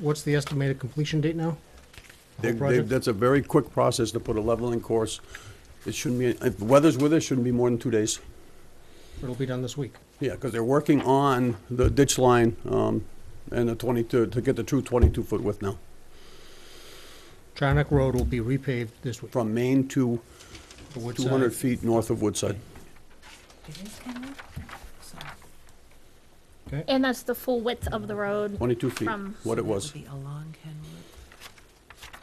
What's the estimated completion date now? They- they- project? That's a very quick process to put a leveling course. It shouldn't be, if the weather's with it, shouldn't be more than two days. It'll be done this week. Yeah, because they're working on the ditch line um, and the 22, to get the true 22-foot width now, Charnock Road will be repaved this week. uh, from Maine to the wood side. 200 feet north of Woodside. It is kind of, sorry. Okay, And that's the full width of the road. 22 feet, From- what it That was. would be along Kenwood,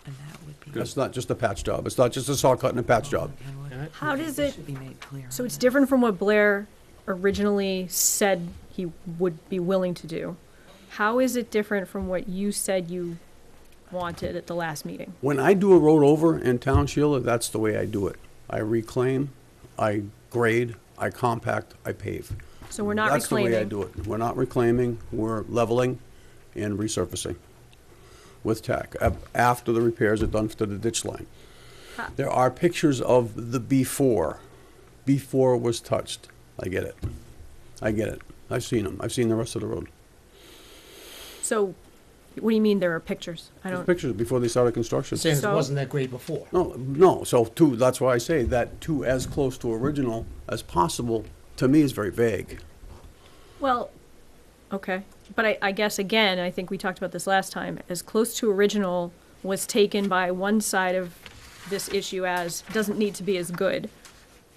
and that would be. That's not just a patch job. It's not just a saw cut and a patch job. along Kenwood. All right. How does This it- Should be made clear. So on it's that. different from what Blair originally said he would be willing to do. How is it different from what you said you wanted at the last meeting? When I do a road over in town, Sheila, that's the way I do it. I reclaim, I grade, I compact, I pave. So we're not That's the way I reclaiming. do it. We're not reclaiming, we're leveling and resurfacing with tack, ab- after the repairs are done to the ditch line. There are pictures of the before, before it was touched. I get it. I get it. I've seen them. I've seen the rest of the road. So what do you mean there are pictures? I There's don't, pictures before they started construction. Saying it So- wasn't that great before. No, no, so two, that's why I say that two as close to original as possible, to me, is very vague. well, okay. But I, I guess again, I think we talked about this last time, as close to original was taken by one side of this issue as doesn't need to be as good.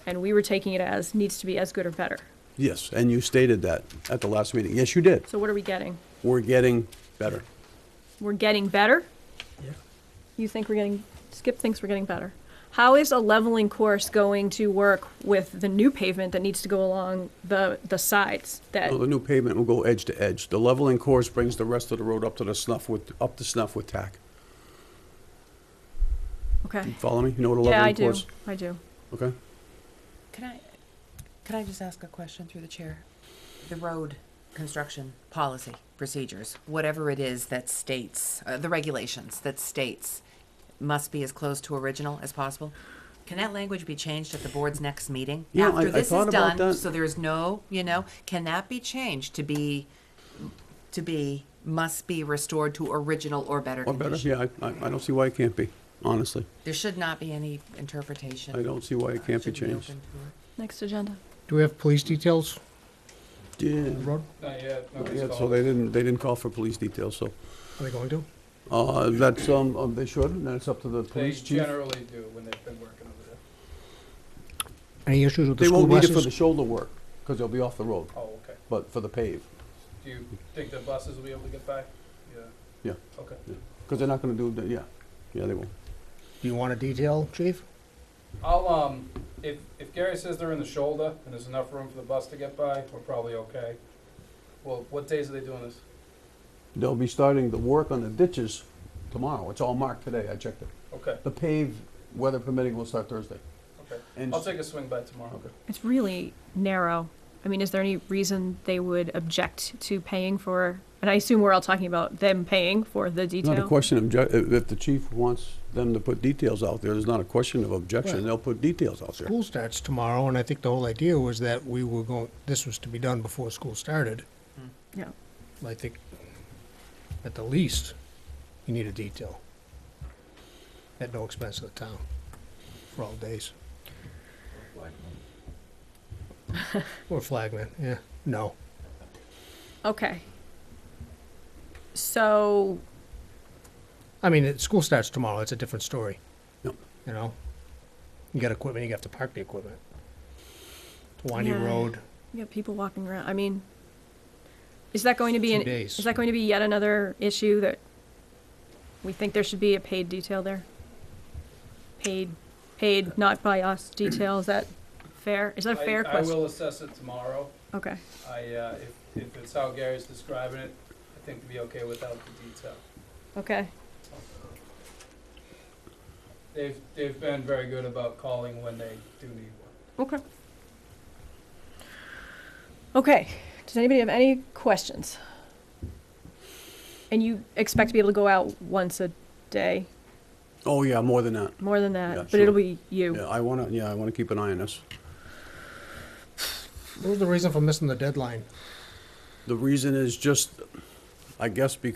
And we were taking it as needs to be as good or better. Yes, and you stated that at the last meeting. Yes, you did. So what are we getting? We're getting better. we're getting better? You think we're getting, Skip thinks we're getting better. How is a leveling course going to work with the new pavement that needs to go along the, the sides that, Well, the new pavement will go edge to edge. The leveling course brings the rest of the road up to the snuff with, up to snuff with tack. okay? Follow me? You know what a Uh, Yeah, I leveling do, course? I do. Okay? Can I, can I just ask a question through the chair? The road construction policy, procedures, whatever it is that states, uh, the regulations that states must be as close to original as possible. Can that language be changed at the board's next meeting? Yeah, I- I After this thought is about done, that. so there's no, you know, can that be changed to be, to be, must be restored to original or better Or better? condition? Yeah, I, I I don't see why it can't be, honestly. There should not be any interpretation. I don't see why it can't be Should we changed. open to it? Next agenda. Do we have police details Yeah. on the road? Not yet, nobody's Yeah, so called. they didn't, they didn't call for police details, so, Are they going to? uh, that's, um, uh, they should, and that's up to the They police chief. generally do when they've been working over there. Any issues with the They school won't need it for the buses? shoulder work, because they'll be off the road, Oh, okay. but for the pave, Do you think the buses will be able to get by? Yeah, yeah. okay. Because they're not gonna do, the- yeah, yeah, they won't. Do you want a detail, chief? I'll, um, if, if Gary says they're in the shoulder and there's enough room for the bus to get by, we're probably okay. Well, what days are they doing this? They'll be starting the work on the ditches tomorrow. It's all marked today, I checked it. Okay, The pave, weather permitting, will start Thursday. okay. And- I'll take a swing by tomorrow. Okay. It's really narrow. I mean, is there any reason they would object to paying for, and I assume we're all talking about them paying for the It's not a detail? question of, obje- if if the chief wants them to put details out there, there's not a question of objection. Right. They'll put details out there. School starts tomorrow, and I think the whole idea was that we were going, this was to be done before school started. Yeah. I think, at the least, you need a detail. At no expense to the town, for all days. Or flagman, yeah, no. Okay. So I mean, it, school starts tomorrow, it's a different story. Yep. You know? You got equipment, you have to park the equipment. It's a windy Yeah. road, You got people walking around. I mean, is that going to be Two an, days. is that going to be yet another issue that we think there should be a paid detail there? Paid, paid not by us detail. Is that fair? Is that a I- fair I question? will assess it tomorrow. Okay. I, uh, if, if it's how Gary's describing it, I think we'd be okay without the detail. Okay. They've, they've been very good about calling when they do need one. Okay. Okay. Does anybody have any questions? And you expect to be able to go out once a day, Oh, yeah, more than that. more than that, Yeah, but it'll sure. be you. Yeah, I wanna, yeah, I wanna keep an eye on this. what was the reason for missing the deadline? The reason is just, I guess because